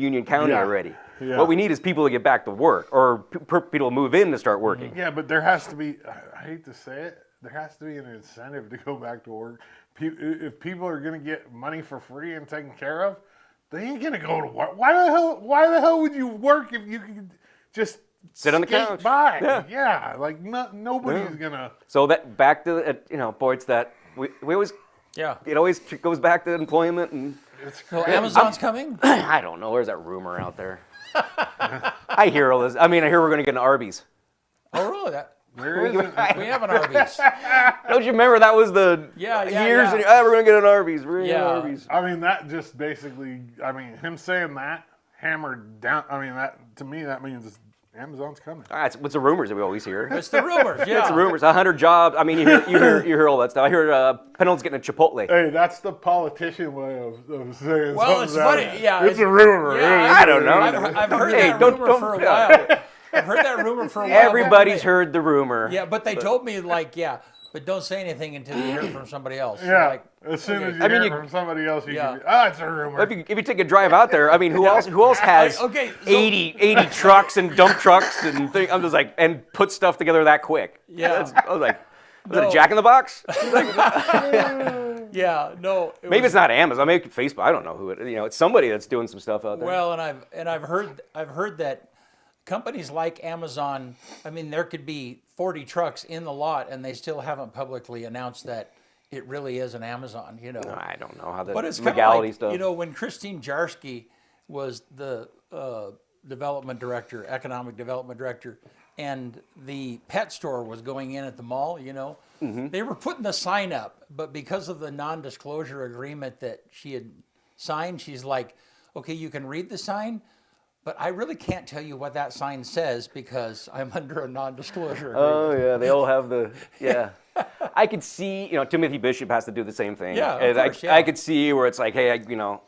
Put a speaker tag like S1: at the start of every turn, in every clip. S1: Union County
S2: Yeah.
S1: already.
S2: Yeah.
S1: What we need is people to get back to work or p- per- people to move in to start working.
S2: Yeah, but there has to be. I- I hate to say it. There has to be an incentive to go back to work. Pe- If people are going to get money for free and taken care of, they ain't going to go to work. Why the hell? Why the hell would you work if you could just
S1: Sit on the
S2: skate
S1: couch.
S2: By?
S1: Yeah.
S2: Yeah. like no, nobody's gonna.
S1: So that back to uh, you know, boy, it's that we, we always
S3: Yeah.
S1: it always tr- goes back to employment and
S2: It's
S3: So
S2: crazy.
S3: Amazon's coming?
S1: I don't know. There's that rumor out there. I hear all this. I mean, I hear we're gonna get an Arby's.
S3: Oh, really? That,
S2: There isn't-
S3: we have an Arby's.
S1: Don't you remember that was the
S3: Yeah, yeah,
S1: years?
S3: yeah.
S1: And, oh, we're gonna get an Arby's. We're gonna get an
S3: Yeah.
S1: Arby's.
S2: I mean, that just basically. I mean, him saying that hammered down. I mean, that to me that means Amazon's coming.
S1: Ah, it's, what's the rumors that we always hear?
S3: It's the rumors. Yeah.
S1: It's rumors. hundred jobs. I mean, you hear, you hear you hear all that stuff. I hear uh, Penel's getting a Chipotle.
S2: Hey, that's the politician way of, of saying
S3: Well, it's
S2: something's out
S3: funny.
S2: there.
S3: Yeah.
S2: It's a rumor.
S3: Yeah,
S1: I don't know.
S3: I've, I've heard
S1: Hey,
S3: that
S1: don't-
S3: rumor
S1: don't-
S3: for a
S1: yeah.
S3: while. I've heard that rumor for a while.
S1: Everybody's
S3: They-
S1: heard the rumor.
S3: Yeah, but they told me like, yeah, but don't say anything until you hear from somebody else.
S2: Yeah.
S3: Like,
S2: as soon as you
S1: I mean,
S2: hear
S1: you-
S2: from somebody else, you
S3: Yeah.
S2: can be, oh, it's a rumor.
S1: If you, if you take a drive out there, I mean, who else? Who else has
S3: Like, okay, so-
S1: 80, 80 trucks and dump trucks and thing? I'm just like, and put stuff together that quick.
S3: Yeah.
S1: That's- I was like, was it
S3: No.
S1: a Jack in the Box?
S3: yeah, no. it
S1: Maybe
S3: was-
S1: it's not Amazon. Maybe it's Facebook. I don't know who it. You know, it's somebody that's doing some stuff out there.
S3: Well, and I've and I've heard I've heard that companies like Amazon. I mean, there could be 40 trucks in the lot, and they still haven't publicly announced that it really is an Amazon. You know.
S1: I don't know how the
S3: But it's kind of
S1: legality
S3: like,
S1: stuff.
S3: you know, when Christine Jarsky was the uh, development director, economic development director, and the pet store was going in at the mall, you know,
S1: Mm-hmm.
S3: they were putting the sign up, but because of the non-disclosure agreement that she had signed, she's like, okay, you can read the sign. But I really can't tell you what that sign says because I'm under a non-disclosure agreement.
S1: Oh yeah, they all have the yeah. I could see, you know, Timothy Bishop has to do the same thing.
S3: Yeah, of
S1: And I,
S3: course, yeah.
S1: I could see where it's like, hey, I, you know,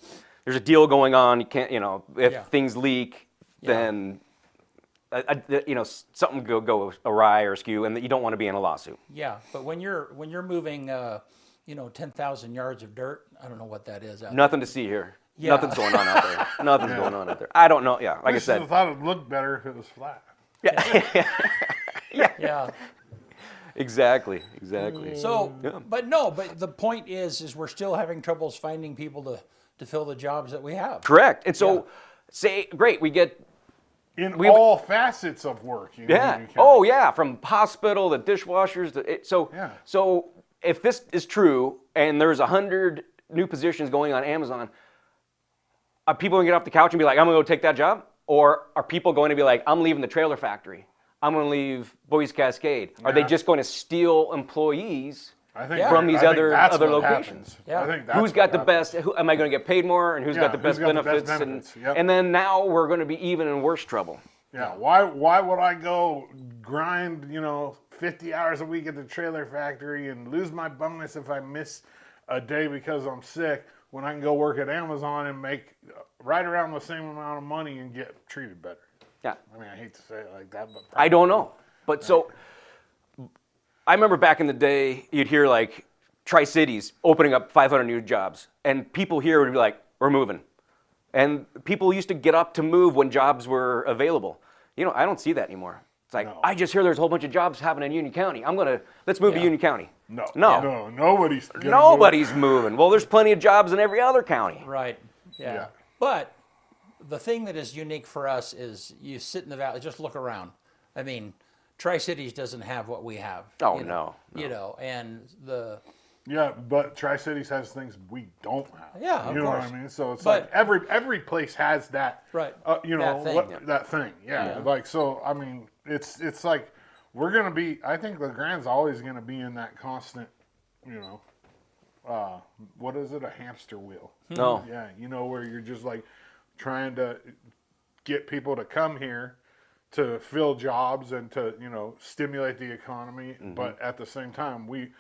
S1: there's a deal going on. You can't, you know, if
S3: Yeah.
S1: things leak, then I, I- th- you know s- something go go awry or askew, and that you don't want to be in a lawsuit.
S3: yeah, but when you're when you're moving, uh, you know, ten thousand yards of dirt, I don't know what that is. out
S1: Nothing to see here.
S3: Yeah.
S1: Nothing's going on out there. Nothing's going on out there. I don't know. Yeah, like
S2: I
S1: I
S2: should have
S1: said,
S2: thought it looked better if it was flat.
S3: there. Yeah.
S1: exactly, exactly.
S3: So, but no, but the point is, is we're still having troubles finding people to, to fill the jobs that we have.
S1: Correct. And so, say, great, we get
S2: In
S1: We-
S2: all facets of work. You
S1: Yeah.
S2: Know, you can-
S1: Oh, yeah. From hospital to dishwashers to it, so.
S2: Yeah.
S1: So if this is true, and there's a hundred new positions going on Amazon, are people gonna get off the couch and be like, "I'm gonna go take that job," or are people going to be like, "I'm leaving the trailer factory. I'm gonna leave Boys Cascade"? Are they
S2: Yeah.
S1: just going to steal employees?
S2: I think
S3: Yeah.
S1: From
S2: I
S1: these
S2: think
S1: other-
S2: that's
S1: other
S2: what
S1: locations.
S2: happens.
S3: Yeah.
S2: I think that's
S1: Who's
S2: what
S1: got the
S2: happens.
S1: best? Who, am I going to get paid more? And who's
S2: Yeah,
S1: got the
S2: who's
S1: best
S2: got the best
S1: benefits?
S2: benefits,
S1: And,
S2: yep.
S1: and then now we're going to be even in worse trouble.
S2: Yeah. Why? Why would I go grind? You know, fifty hours a week at the trailer factory and lose my bonus if I miss a day because I'm sick. When I can go work at Amazon and make uh, right around the same amount of money and get treated better.
S1: Yeah.
S2: I mean, I hate to say it like that, but
S1: I don't know. But so I remember back in the day, you'd hear like Tri Cities opening up 500 new jobs, and people here would be like, "We're moving," and people used to get up to move when jobs were available. You know, I don't see that anymore. It's like
S2: No.
S1: I just hear there's a whole bunch of jobs happening in Union County. I'm gonna let's move
S3: Yeah.
S1: to Union County.
S2: No,
S1: no,
S2: no, nobody's. gonna
S1: nobody's moving. Well, there's plenty of jobs in every other county.
S3: Right. Yeah.
S2: Yeah.
S3: But the thing that is unique for us is you sit in the valley, just look around. I mean, Tri Cities doesn't have what we have.
S1: Oh,
S3: you know,
S1: no,
S3: You know, and the
S2: Go. Yeah, but Tri Cities has things we don't have.
S3: Yeah, of
S2: you know
S3: course.
S2: what I mean. So it's
S3: But-
S2: like every every place has that.
S3: Right.
S2: Uh, you know
S3: That thing.
S2: what
S3: Yeah.
S2: that thing. Yeah, Like so, I mean, it's it's like we're gonna be. I think Legrand's always gonna be in that constant. You know, uh, what is it? A hamster wheel.
S1: No,
S2: Yeah, you know where you're just like trying to get people to come here to fill jobs and to you know stimulate the economy, but at the same time we,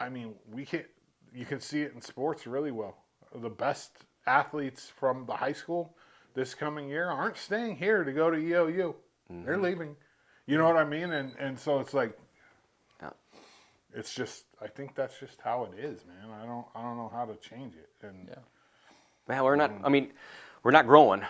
S2: I mean we can't. You can see it in sports really well. The best athletes from the high school this coming year aren't staying here to go to EOU. They're leaving. You know what I mean? And and so it's like it's just I think that's just how it is, man. I don't I don't know how to change it. And
S1: Man, we're not. I mean, we're not growing.